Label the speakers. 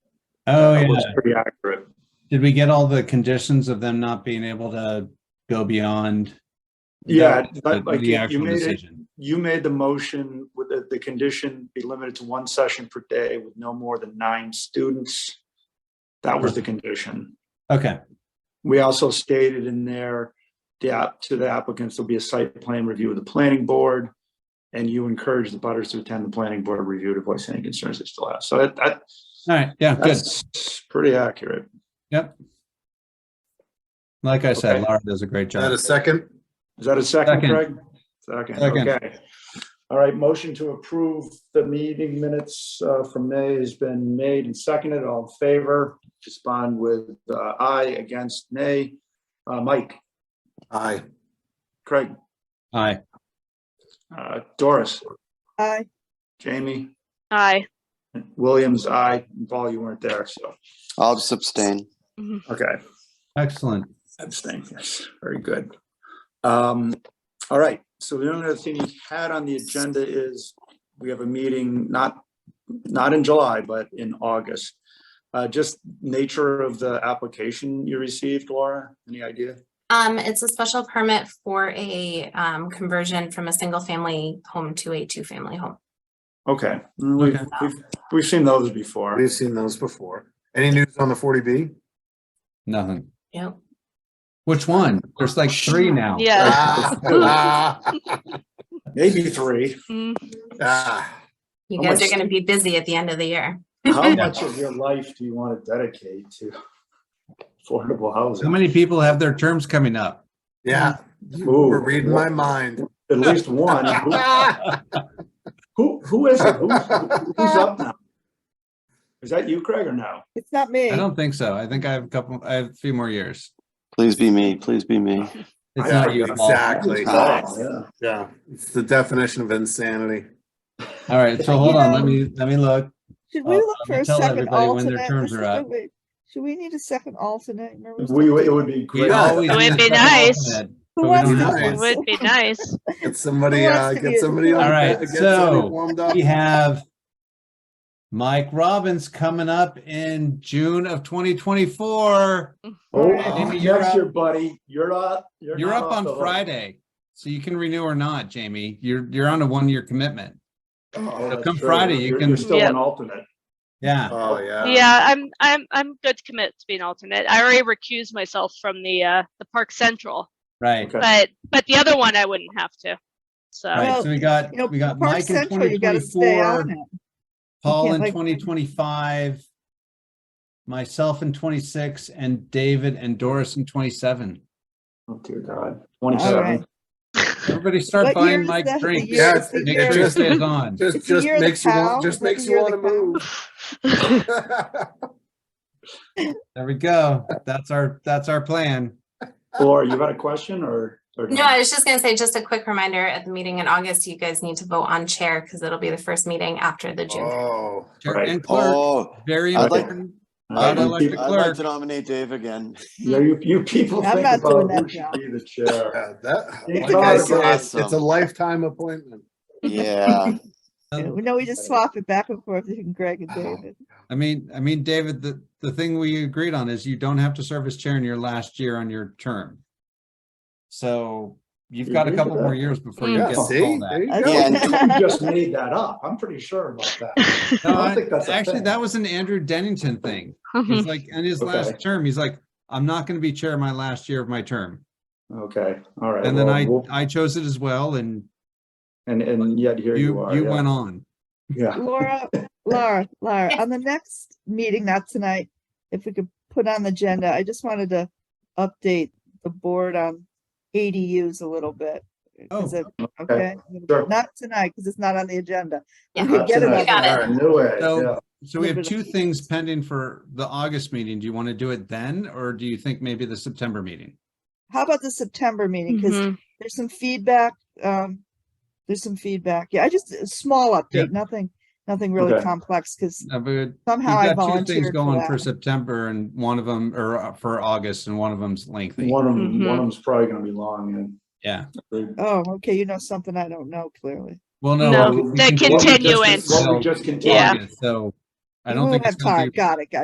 Speaker 1: Oh,
Speaker 2: That
Speaker 1: yeah.
Speaker 2: looks Pretty accurate.
Speaker 1: Did we get all the conditions of them not being able to go beyond?
Speaker 2: Yeah,
Speaker 1: The
Speaker 2: but like
Speaker 1: the
Speaker 2: you- you
Speaker 1: actual
Speaker 2: made it,
Speaker 1: decision.
Speaker 2: you made the motion with the, the condition be limited to one session per day with no more than nine students. That was the condition.
Speaker 1: Okay,
Speaker 2: We also stated in there, the app, to the applicants, there'll be a site plan review of the planning board. And you encourage the butters to attend the planning board review to voice any concerns they still have. So that, that,
Speaker 1: all right, yeah, good.
Speaker 2: that's pretty accurate.
Speaker 1: Like I said,
Speaker 2: okay.
Speaker 1: Laura does a great
Speaker 3: Is that
Speaker 1: job.
Speaker 3: a second?
Speaker 2: Is that a second,
Speaker 1: Second.
Speaker 2: Craig? Second,
Speaker 1: Second.
Speaker 2: okay. All right, motion to approve the meeting minutes uh, from May has been made and seconded. All in favor? Respond with uh, aye, against nay. Uh, Mike,
Speaker 3: Aye.
Speaker 2: Craig,
Speaker 1: Aye,
Speaker 2: uh, Doris,
Speaker 4: Aye.
Speaker 2: Jamie,
Speaker 4: Aye.
Speaker 2: Williams, aye. And Paul, you weren't there, so,
Speaker 5: I'll just abstain.
Speaker 2: okay.
Speaker 1: excellent.
Speaker 2: Abstain, yes, very good. Um, all right, so the only other thing we had on the agenda is we have a meeting, not, not in July, but in August. Uh, just nature of the application you received, Laura, any idea?
Speaker 6: Um, it's a special permit for a, um, conversion from a single family home to a two-family home.
Speaker 2: Okay, Mm, we've,
Speaker 1: Okay.
Speaker 2: we've, we've seen those before.
Speaker 3: We've seen those before. Any news on the 40B?
Speaker 1: Nothing.
Speaker 6: Yep.
Speaker 1: Which one? There's like three now.
Speaker 7: Uh,
Speaker 4: Yeah.
Speaker 3: Ah.
Speaker 2: Maybe three.
Speaker 4: Mm.
Speaker 3: Ah.
Speaker 6: You
Speaker 2: How
Speaker 6: guys are
Speaker 2: much-
Speaker 6: gonna be busy at the end of the year.
Speaker 2: How much of your life do you want to dedicate to affordable
Speaker 1: How
Speaker 2: housing?
Speaker 1: many people have their terms coming up?
Speaker 3: Yeah, you were reading my mind.
Speaker 2: At least one.
Speaker 3: Ah.
Speaker 2: Who, who is it? Who's, who's up now? Is that you, Craig, or no?
Speaker 4: It's not me.
Speaker 1: I don't think so. I think I have a couple, I have a few more years.
Speaker 5: Please be me. Please be me.
Speaker 1: It's
Speaker 3: Yeah,
Speaker 1: not you, Paul.
Speaker 3: Exactly.
Speaker 2: Oh, yeah.
Speaker 3: Yeah, it's the definition of insanity.
Speaker 1: All right, so hold on, let me, let me look.
Speaker 4: Should we
Speaker 1: Uh,
Speaker 4: look for a
Speaker 1: tell
Speaker 4: second
Speaker 1: everybody when their
Speaker 4: alternate?
Speaker 1: terms
Speaker 4: This
Speaker 1: are
Speaker 4: is
Speaker 1: up.
Speaker 4: the week. Should we need a second alternate? Remember
Speaker 2: We,
Speaker 4: something?
Speaker 2: it would be
Speaker 1: We
Speaker 2: great.
Speaker 3: Yeah.
Speaker 1: always
Speaker 7: It would
Speaker 1: need a
Speaker 7: be
Speaker 1: second
Speaker 7: nice.
Speaker 1: alternate. but
Speaker 4: Who
Speaker 1: we
Speaker 4: wants
Speaker 1: don't
Speaker 4: to
Speaker 3: have one.
Speaker 4: do this?
Speaker 7: Would be nice.
Speaker 3: Get somebody,
Speaker 4: wants
Speaker 3: uh,
Speaker 4: to
Speaker 3: get
Speaker 4: be-
Speaker 3: somebody on.
Speaker 1: All right,
Speaker 3: get
Speaker 1: so-
Speaker 3: somebody warmed up.
Speaker 1: We have Mike Robbins coming up in June of 2024.
Speaker 2: Oh,
Speaker 1: Jamie, you're
Speaker 2: next
Speaker 1: up.
Speaker 2: year, buddy, you're up.
Speaker 1: You're up
Speaker 2: not off the
Speaker 1: on
Speaker 2: hook.
Speaker 1: Friday, so you can renew or not, Jamie. You're, you're on a one-year commitment.
Speaker 2: Oh, that's
Speaker 1: come
Speaker 2: true.
Speaker 1: Friday, you
Speaker 2: You're-
Speaker 1: can-
Speaker 2: You're still
Speaker 7: Yep.
Speaker 2: an alternate.
Speaker 1: Yeah,
Speaker 3: Oh, yeah.
Speaker 7: Yeah, I'm I'm I'm good to commit to being alternate. I already recused myself from the uh the Park Central,
Speaker 1: right.
Speaker 2: Okay.
Speaker 7: but but the other one I wouldn't have to.
Speaker 1: All
Speaker 7: So
Speaker 1: right,
Speaker 4: Well,
Speaker 1: so we got,
Speaker 4: You know,
Speaker 1: we got
Speaker 4: Park
Speaker 1: Mike in
Speaker 4: Central, you gotta stay
Speaker 1: 2024,
Speaker 4: on it.
Speaker 1: Paul
Speaker 4: can't,
Speaker 1: in
Speaker 4: like-
Speaker 1: 2025, myself in 26, and David and Doris in 27.
Speaker 2: Oh, dear God.
Speaker 4: All right.
Speaker 2: Twenty-seven.
Speaker 1: Everybody start
Speaker 4: What year
Speaker 1: buying
Speaker 4: is
Speaker 1: Mike
Speaker 4: that? The
Speaker 1: drinks.
Speaker 3: year-
Speaker 1: Make
Speaker 3: it's the
Speaker 1: sure
Speaker 3: year-
Speaker 1: he stays on.
Speaker 3: Just,
Speaker 4: It's the
Speaker 3: just
Speaker 4: year of the
Speaker 3: makes you
Speaker 4: cow.
Speaker 3: want, just
Speaker 4: It's the
Speaker 3: makes you
Speaker 4: year of
Speaker 3: want to
Speaker 4: the
Speaker 3: move.
Speaker 1: There we go. That's our, that's our plan.
Speaker 2: Laura, you got a question or? or
Speaker 6: No, I was just gonna say, just a quick reminder, at the meeting in August, you guys need to vote on chair, because it'll be the first meeting after the June.
Speaker 3: Oh,
Speaker 1: Chair
Speaker 2: Right.
Speaker 1: And clerk,
Speaker 5: Oh,
Speaker 1: very
Speaker 5: I'd like-
Speaker 1: important.
Speaker 2: All
Speaker 5: I'd
Speaker 2: right,
Speaker 1: like
Speaker 2: you
Speaker 1: to-
Speaker 2: peop-
Speaker 5: like to nominate Dave again.
Speaker 2: yeah, You, you people
Speaker 4: I'm
Speaker 2: think
Speaker 4: not doing
Speaker 2: about who
Speaker 4: that
Speaker 2: should
Speaker 4: now.
Speaker 2: be the chair.
Speaker 3: yeah, that,
Speaker 2: It's
Speaker 3: like I
Speaker 2: awesome.
Speaker 3: said, it's it's a lifetime appointment.
Speaker 5: Yeah.
Speaker 1: Um,
Speaker 4: No, we just swap it back and forth between Greg
Speaker 1: Oh.
Speaker 4: and David.
Speaker 1: I mean, I mean, David, the, the thing we agreed on is you don't have to serve as chair in your last year on your term. So you've
Speaker 2: You
Speaker 1: got a
Speaker 2: agree
Speaker 1: couple
Speaker 2: with
Speaker 1: more
Speaker 2: that?
Speaker 1: years before you
Speaker 7: Mm.
Speaker 3: Yeah,
Speaker 1: get to
Speaker 3: see?
Speaker 1: call
Speaker 3: There
Speaker 1: that.
Speaker 3: you
Speaker 4: I
Speaker 3: go.
Speaker 5: Yeah,
Speaker 4: don't-
Speaker 2: You just made that up. I'm pretty sure about that.
Speaker 1: No,
Speaker 2: I don't
Speaker 1: I-
Speaker 2: think that's a
Speaker 1: Actually,
Speaker 2: thing.
Speaker 1: that was an Andrew Dennington thing. He's like, in his
Speaker 2: Okay.
Speaker 1: last term, he's like, I'm not going to be chair my last year of my term.
Speaker 2: Okay, all right.
Speaker 1: And then
Speaker 2: well,
Speaker 1: I,
Speaker 2: we'll-
Speaker 1: I chose it as well and
Speaker 2: And, and yet here you
Speaker 1: you,
Speaker 2: are.
Speaker 1: you
Speaker 2: yeah.
Speaker 1: went on.
Speaker 2: Yeah.
Speaker 4: Laura, Laura, Laura, on the next meeting, not tonight, if we could put on the agenda, I just wanted to update the board on ADUs a little bit. Is
Speaker 1: Oh.
Speaker 4: it- Okay,
Speaker 2: sure.
Speaker 4: not tonight, because it's not on the agenda.
Speaker 6: Yeah.
Speaker 4: We could get it
Speaker 2: Tonight.
Speaker 6: You got it.
Speaker 3: All
Speaker 2: I
Speaker 3: right.
Speaker 2: knew it,
Speaker 1: So-
Speaker 2: yeah.
Speaker 1: So we
Speaker 4: Leave
Speaker 1: have
Speaker 4: it
Speaker 1: two
Speaker 4: at that.
Speaker 1: things pending for the August meeting. Do you want to do it then? Or do you think maybe the September meeting?
Speaker 4: How about the September meeting? Because
Speaker 7: Mhm.
Speaker 4: there's some feedback, um, there's some feedback. Yeah, I just, a small
Speaker 1: Yeah.
Speaker 4: update, nothing, nothing really
Speaker 2: Okay.
Speaker 4: complex, because
Speaker 1: Uh, but
Speaker 4: somehow I
Speaker 1: We've got two
Speaker 4: volunteered
Speaker 1: things
Speaker 4: for
Speaker 1: going for
Speaker 4: that.
Speaker 1: September and one of them, or uh, for August and one of them's lengthy.
Speaker 2: One of
Speaker 4: Mm-hmm.
Speaker 2: them, one
Speaker 7: Mhm.
Speaker 2: of them's probably gonna be long
Speaker 1: Yeah.
Speaker 2: and.
Speaker 4: Oh, okay, you know something I don't know clearly.
Speaker 1: Well, no.
Speaker 7: No,
Speaker 1: we- we
Speaker 7: the
Speaker 1: can-
Speaker 2: What we just-
Speaker 7: continuance.
Speaker 2: What we
Speaker 1: So,
Speaker 2: just continued.
Speaker 7: Yeah.
Speaker 1: August, So I
Speaker 4: We
Speaker 1: don't
Speaker 4: won't
Speaker 1: think it's
Speaker 4: have
Speaker 1: gonna
Speaker 4: time.
Speaker 1: be.
Speaker 4: Got it, got it.